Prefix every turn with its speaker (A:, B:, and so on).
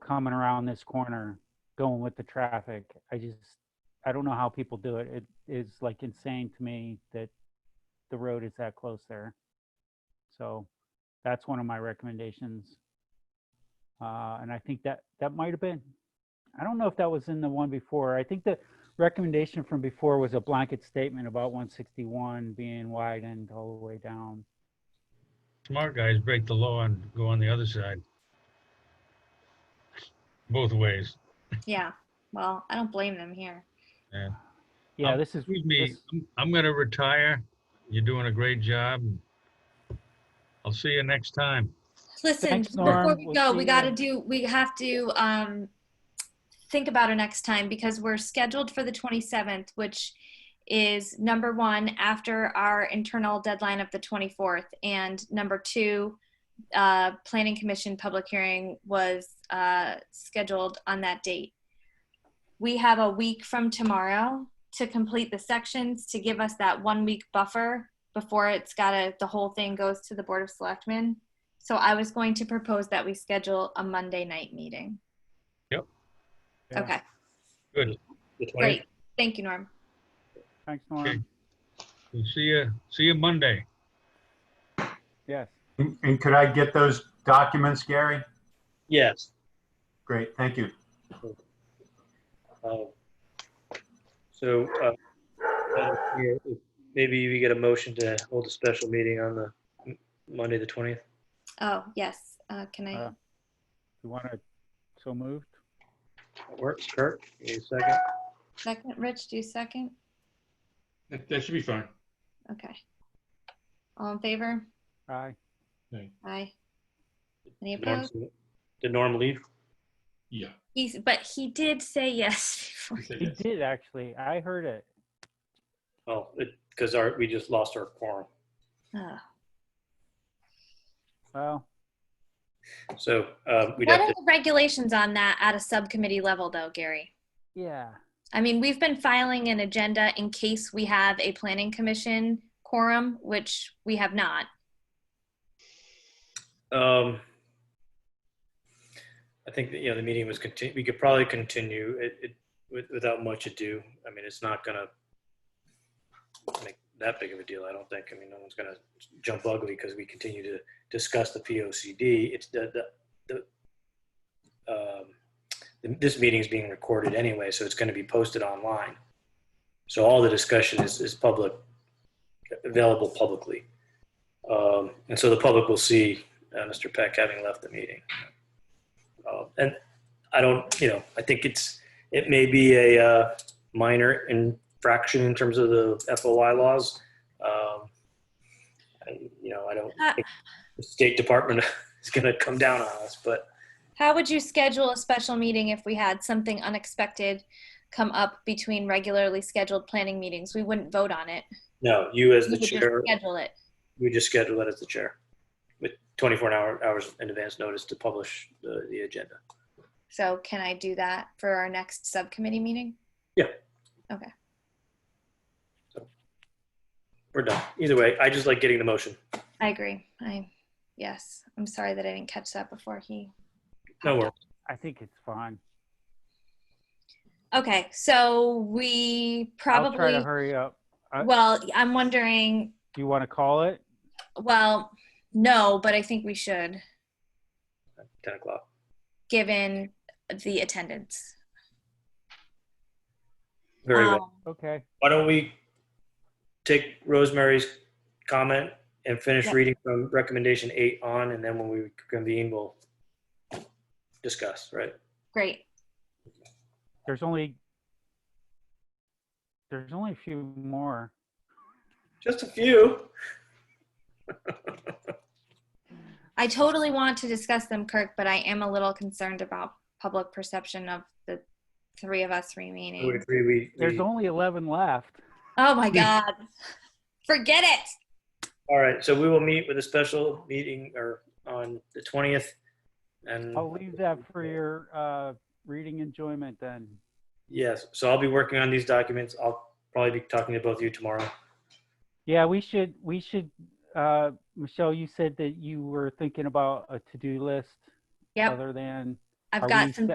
A: coming around this corner, going with the traffic. I just, I don't know how people do it. It is like insane to me that the road is that close there. So that's one of my recommendations. Uh, and I think that, that might have been, I don't know if that was in the one before. I think the recommendation from before was a blanket statement about one sixty-one being widened all the way down.
B: Smart guys break the law and go on the other side. Both ways.
C: Yeah, well, I don't blame them here.
A: Yeah,
B: Um,
A: this is,
B: Excuse me, Um,
A: this-
B: I'm- I'm gonna retire. You're doing a great job. I'll see you next time.
C: Listen,
A: Thanks,
C: just before
A: Norm.
C: we
A: We'll
C: go,
A: see
C: we
A: you.
C: gotta do, we have to, um, think about it next time because we're scheduled for the 27th, which is number one, after our internal deadline of the 24th. And number two, uh, planning commission public hearing was, uh, scheduled on that date. We have a week from tomorrow to complete the sections, to give us that one-week buffer before it's gotta, the whole thing goes to the Board of Selectmen. So I was going to propose that we schedule a Monday night meeting.
A: yeah.
C: Okay,
B: Good.
C: great. Thank you, Norm.
A: thanks,
B: Okay.
A: Norm.
B: We'll See you, see you Monday.
A: Yes.
D: And and could I get those documents, Gary?
E: Yes.
D: Great, thank you.
E: Uh, So uh, Madam Chair, if- maybe we get a motion to hold a special meeting on the M- Monday, the 20th.
C: Oh, yes, uh, can I,
A: Uh, You want to, so moved?
E: That works, Kurt? you need a second?
C: second, Rich, do you second?
F: That, that should be fine.
C: Okay. All in favor?
A: Aye.
C: Aye. Any
E: Did Norm
C: opposed?
E: see it? Did Norm leave?
F: Yeah.
C: He's, but he did say yes.
F: you said
A: He
F: yes.
A: did, actually. I heard it.
E: Oh, because our, we just lost our quorum.
C: Oh.
A: Well,
E: So uh, we'd
C: What
E: have
C: are
E: to,
C: the regulations on that at a subcommittee level though, Gary?
A: yeah,
C: I mean, we've been filing an agenda in case we have a planning commission quorum, which we have not.
E: um, I think, that, you know, the meeting was continu, we could probably continue it it with- without much ado. I mean, it's not going to make that big of a deal, I don't think. I mean, no one's going to jump ugly because we continue to discuss the POCD. It's the, the, the, um, th- this meeting's being recorded anyway, so it's going to be posted online. So all the discussion is, is public, available publicly. Um, and so the public will see uh, Mr. Peck having left the meeting. Uh, and I don't, you know, I think it's, it may be a uh, minor infraction in terms of the FOI laws. Um, I, you know, I don't
C: Uh,
E: think the State Department is going to come down on us, but
C: How would you schedule a special meeting if we had something unexpected come up between regularly scheduled planning meetings? We wouldn't vote on it.
E: no, you as
C: We
E: the
C: would just
E: chair,
C: Schedule it.
E: we just schedule that as the chair with 24 hour, hours in advance notice to publish the, the agenda.
C: So can I do that for our next subcommittee meeting?
E: We're done. Either way, I just like getting the motion.
C: I agree. I, yes, I'm sorry that I didn't catch that before he.
E: No worries.
A: I think it's fine.
C: Okay, so we
A: I'll try to
C: probably,
A: hurry up. I-
C: well, I'm wondering,
A: Do you want to call it?
C: well, no, but I think we should,
E: 10 o'clock.
C: given the attendance.
E: Very well.
C: Um,
A: Okay,
E: Why don't we take Rosemary's comment and finish
C: Yeah.
E: reading from recommendation eight on, and then when we convene, we'll discuss, right?
C: Great.
A: there's only, there's only a few more.
E: Just a few.
C: I totally want to discuss them, Kirk, but I am a little concerned about public perception of the three of us
E: I would
C: remaining.
E: agree. We,
A: There's
E: we, all
A: only 11 left.
C: Oh my God. Forget it.
E: right. So we will meet with a special meeting or on the 20th. And
A: I'll leave that for your uh, reading enjoyment then.
E: Yes. So I'll be working on these documents. I'll probably be talking to both of you tomorrow.
A: Yeah, we should, we should, uh, Michelle, you said that you were thinking about a to-do list
C: Yep.
A: other than
C: I've
A: Are
C: got
A: we
C: some